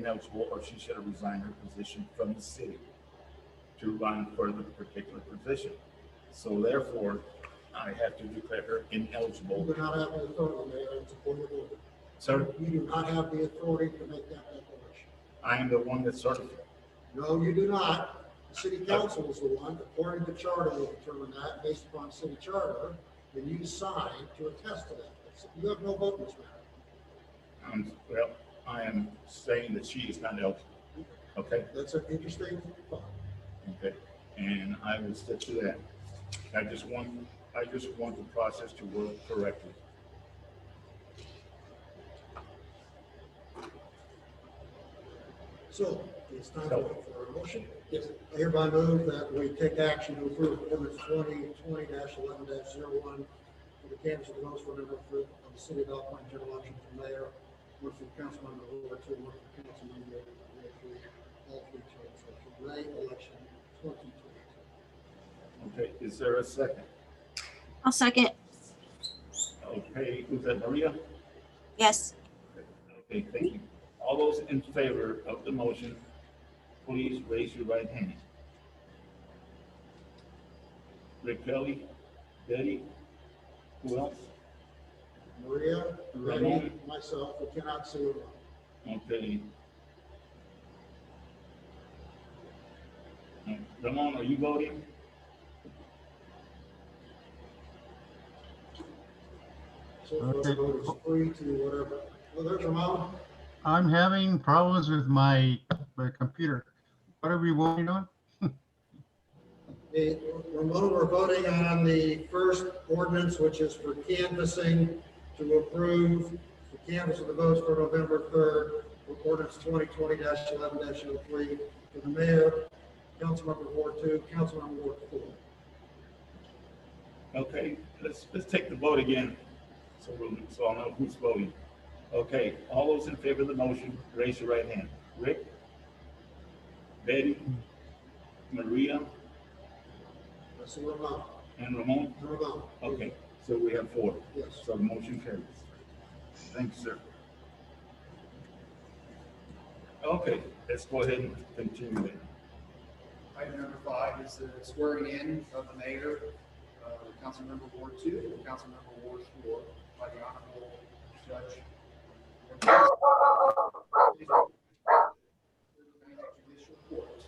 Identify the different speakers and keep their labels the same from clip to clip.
Speaker 1: ineligible or she should have resigned her position from the city to run for the particular position. So therefore, I have to declare her
Speaker 2: You
Speaker 1: ineligible.
Speaker 2: do not have the authority, Mayor, and support the board.
Speaker 1: Sir,
Speaker 2: You do not have the authority to make that declaration.
Speaker 1: I am the one that certified.
Speaker 2: No, you do not. The city council is the one, according to charter, will determine that based upon city charter, then you sign to attest to that. You have no vote in this matter.
Speaker 1: Um, well, I am saying that she is not eligible. Okay,
Speaker 2: That's an interesting thought.
Speaker 1: okay, and I will stick to that. I just want, I just want the process to work correctly.
Speaker 2: So it's time for a motion. Yes. I hereby move that we take action to approve ordinance twenty twenty eleven one for the canvas of the most for number three of the city of Alpine general election for mayor, one for council member Ward two, one for council member Ward three, all three terms, for May election twenty twenty.
Speaker 1: Okay, is there a second?
Speaker 3: I'll second.
Speaker 1: Okay, was that Maria?
Speaker 3: Yes.
Speaker 1: Okay, thank you. All those in favor of the motion, please raise your right hand. Rick Kelly, Betty, who else?
Speaker 2: Maria, Betty,
Speaker 1: Ramon.
Speaker 2: myself, we cannot see Ramon.
Speaker 1: Okay. Ramon, are you voting?
Speaker 2: So if the
Speaker 4: Okay.
Speaker 2: vote is three to whatever. Well, there's Ramon.
Speaker 4: I'm having problems with my, my computer. What are we voting on?
Speaker 2: The, Ramon, we're voting on the first ordinance, which is for canvassing to approve the canvass of the votes for November third, for ordinance twenty twenty eleven 3 for the mayor, councilmember Ward two, councilmember Ward four.
Speaker 1: Okay, let's, let's take the vote again, so we'll, so I'll know who's voting. Okay, all those in favor of the motion, raise your right hand. Rick? Betty? Maria
Speaker 2: That's Ramon,
Speaker 1: and Ramon?
Speaker 2: Ramon.
Speaker 1: Okay, so we have four,
Speaker 2: Yes.
Speaker 1: so the motion carries. Thank you, sir. Okay, let's go ahead and continue it.
Speaker 5: Item number five is the swearing in of the mayor, uh, Councilmember Ward Two, and Councilmember Ward Four, by the Honorable Judge. Judicial Court.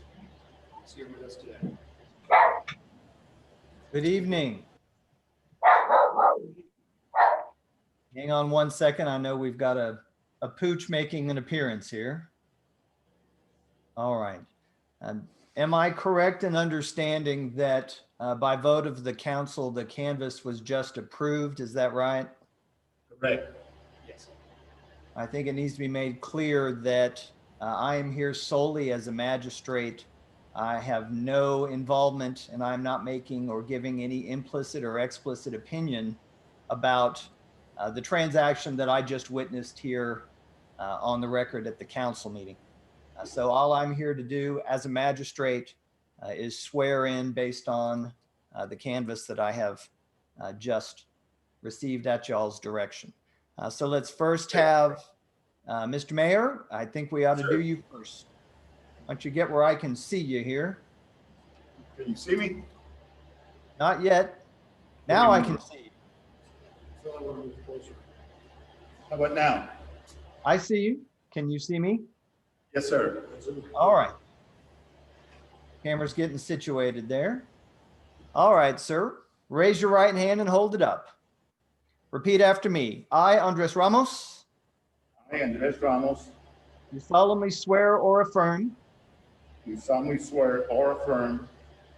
Speaker 5: He's here with us today.
Speaker 6: Good evening. Hang on one second. I know we've got a, a pooch making an appearance here. All right. Um, Am I correct in understanding that uh, by vote of the council, the canvas was just approved? Is that right?
Speaker 1: Correct,
Speaker 5: Yes.
Speaker 6: I think it needs to be made clear that uh, I am here solely as a magistrate. I have no involvement and I'm not making or giving any implicit or explicit opinion about uh, the transaction that I just witnessed here uh, on the record at the council meeting. Uh, so all I'm here to do as a magistrate uh, is swear in based on uh, the canvas that I have uh, just received at y'all's direction. Uh, so let's first have, uh, Mr. Mayor, I think we ought to do you first. Why don't you get where I can see you here?
Speaker 1: can you see me?
Speaker 6: Not yet. Now I can see. you.
Speaker 2: So I want to move closer.
Speaker 1: How about now?
Speaker 6: I see you. Can you see me?
Speaker 1: Yes, sir.
Speaker 6: All right. Camera's getting situated there. All right, sir. Raise your right hand and hold it up. Repeat after me. I, Andres Ramos,
Speaker 1: I, Andres Ramos,
Speaker 6: do solemnly swear or affirm
Speaker 1: do solemnly swear or affirm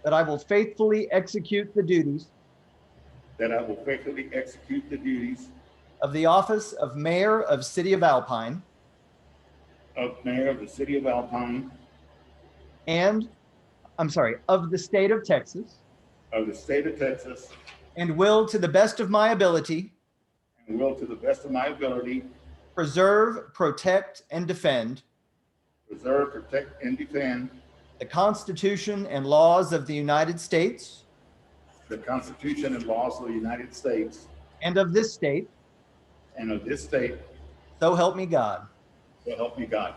Speaker 6: that I will faithfully execute the duties
Speaker 1: that I will faithfully execute the duties
Speaker 6: of the office of Mayor of City of Alpine
Speaker 1: of Mayor of the City of Alpine
Speaker 6: and, I'm sorry, of the state of Texas,
Speaker 1: of the State of Texas
Speaker 6: and will, to the best of my ability,
Speaker 1: and will, to the best of my ability,
Speaker 6: preserve, protect, and defend
Speaker 1: preserve, protect, and defend
Speaker 6: the Constitution and laws of the United States
Speaker 1: the Constitution and laws of the United States
Speaker 6: and of this state,
Speaker 1: and of this state,
Speaker 6: so help me God.
Speaker 1: so help me God.